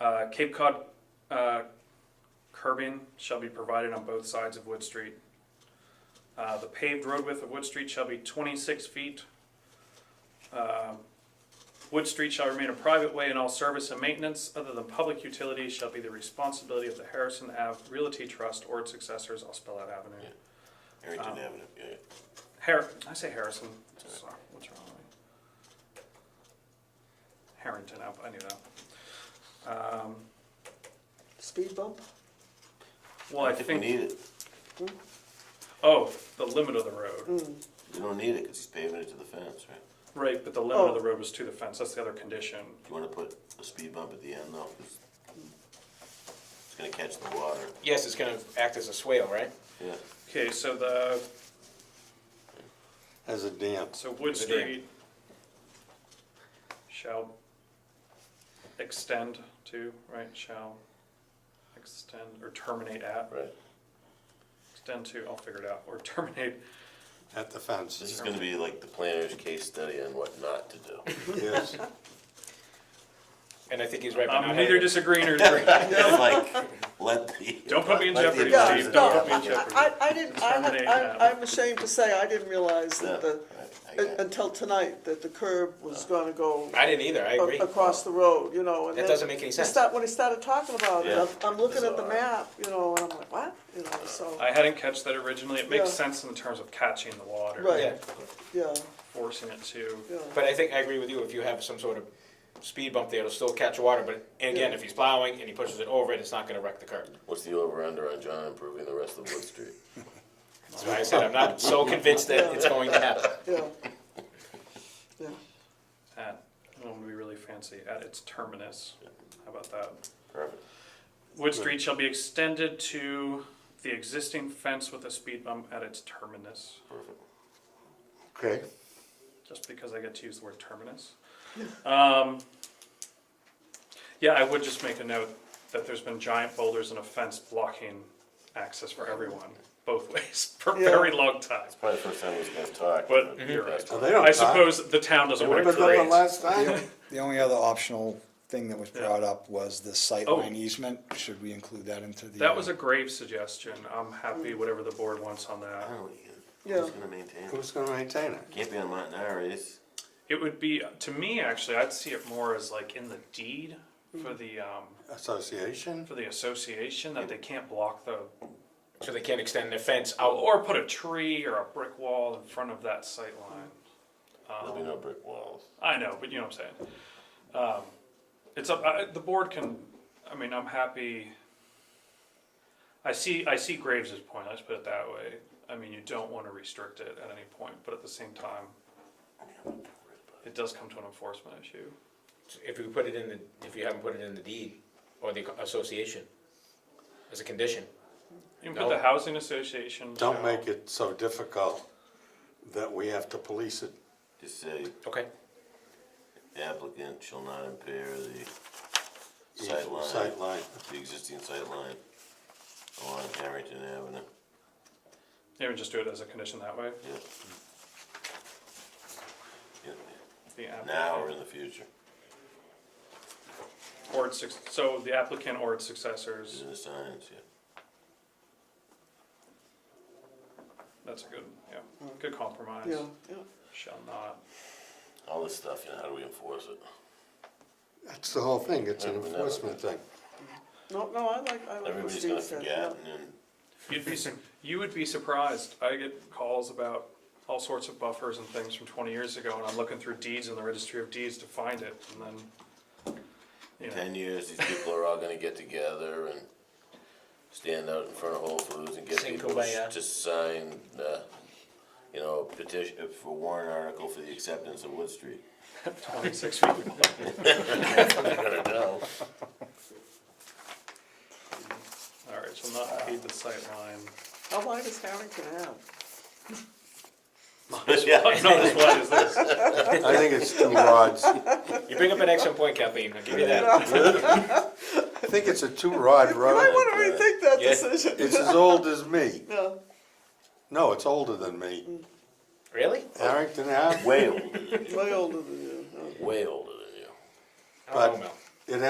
Uh, Cape Cod uh, curbing shall be provided on both sides of Wood Street. Uh, The paved road width of Wood Street shall be 26 feet. Uh, Wood Street shall remain a private way and all service and maintenance other than public utilities shall be the responsibility of the Harrison Ave Realty Trust or its successors, I'll spell out avenue. Yeah. Harrington Um, Avenue, yeah, yeah. Har, I say Harrison, sorry, what's wrong with me? Harrington, I I knew that. Um, Speed bump? Well, I We think, need it, oh, the limit of the road, we don't need it, cause he's paving it to the fence, right? right, but the limit of Oh. the road was to the fence, that's the other condition. You wanna put a speed bump at the end though, 'cause it's gonna catch the water, Yes, it's gonna act as a swale, right? yeah. Okay, so the, As a dam. so Wood Good idea. Street shall extend to, right, shall extend or terminate at, Right. extend to, I'll figure it out, or terminate At the This fence, is gonna be like the planner's case study on what not to do. yes. And I think he's right. by not I'm having Um, neither it. disagreeing or agreeing. It's like, let the. Don't put me in let the jeopardy, advisor Steve, do don't it. put me in Yeah. jeopardy. I, I didn't, I, Terminate I, now. I'm ashamed to say, I didn't realize that the, Yeah, I got un- it. Oh. until tonight, that the curb was gonna go I didn't either, I a- agree. across the road, you know, and That then. doesn't make any he sense. start- When he started talking about it, Yeah. I'm, I'm looking at the Bizarre. map, you know, and I'm like, what, you know, so, I hadn't catch that originally. It makes Yeah. sense in terms of catching the water, Right. Yeah, yeah, forcing it to. yeah. but I think, I agree with you, if you have some sort of speed bump there, it'll still catch water, but, and again, if he's plowing and he pushes it over it, it's not gonna wreck the curb. What's the over under on John improving the rest of Wood Street? That's why I said, I'm not so convinced that it's going to happen. Yeah. Yeah, At when we really fancy at its terminus. How about that? Perfect. Wood Street shall be extended to the existing fence with a speed bump at its terminus. Okay, Just because I get to use the word terminus. Um, yeah, I would just make a note that there's been giant boulders and a fence blocking access for everyone both ways for a Yeah. very long time. Probably the first time he's gonna talk. But Mhm. you're right. Well, they don't I talk. suppose the town doesn't want to but then the create. last time, The only other optional thing that was Yeah. brought up was the Oh. sightline easement. Should we include that into the? That was a grave suggestion. I'm happy whatever the board wants on I that. don't know, you- Yeah. Who's gonna maintain it? who's gonna maintain it? Can't be on Montanaris. It would be, to me, actually, I'd see it more as like in the deed for the, um, Association? for the association that they can't block the, So they can't extend their fence out, or put a tree or a brick wall in front of that sight line. Um, There'll be no brick walls. I know, but you know what I'm saying. Um, it's up, I, the board can, I mean, I'm happy. I see, I see Graves' point, let's put it that way. I mean, you don't wanna restrict it at any point, but at the same time, it does come to an enforcement issue. if you put it in the, if you haven't put it in the deed or the association as a condition. You can put the No. housing association. Don't shall- make it so difficult that we have to police it. Just say Okay. the applicant shall not impair the Eas- sight line, Sightline, the existing sight line along Harrington Avenue. Maybe just do it as a condition that way. Yeah. The Yeah, Now or applicant in the future, or its, suc- so the applicant or its It's successors, in the signs, yeah. that's a good, yeah, good compromise. yeah, yeah. Shall not. All this stuff, you know, how do we enforce it? that's the whole thing, it's an Never, never. enforcement thing. No, no, I like, I like what Everybody's gonna Steve said, yeah. forget and then You'd be, su- you would be surprised. I get calls about all sorts of buffers and things from twenty years ago, and I'm looking through deeds in the registry of deeds to find it, and then, you know, ten years, these people are all gonna get together and stand out in front of Whole Foods and get Sing people to Kumbaya. s- to sign, uh, you know, petition, uh, for warrant article for the acceptance of Wood Street. twenty-six feet. Better know. All right, shall not pave the sight line. How wide is Harrington Ave? Yeah, Not as wide as this. I think it's two rods, I You bring up an excellent point, Kathleen, I'll give you that. think it's a two rod You might road. wanna rethink that Yeah. decision, It's as old as me, yeah. no, it's older than me. Really? Harrington Ave, Mm. Way older, than you. Way older than you. way older than you. I don't But- know, Mel.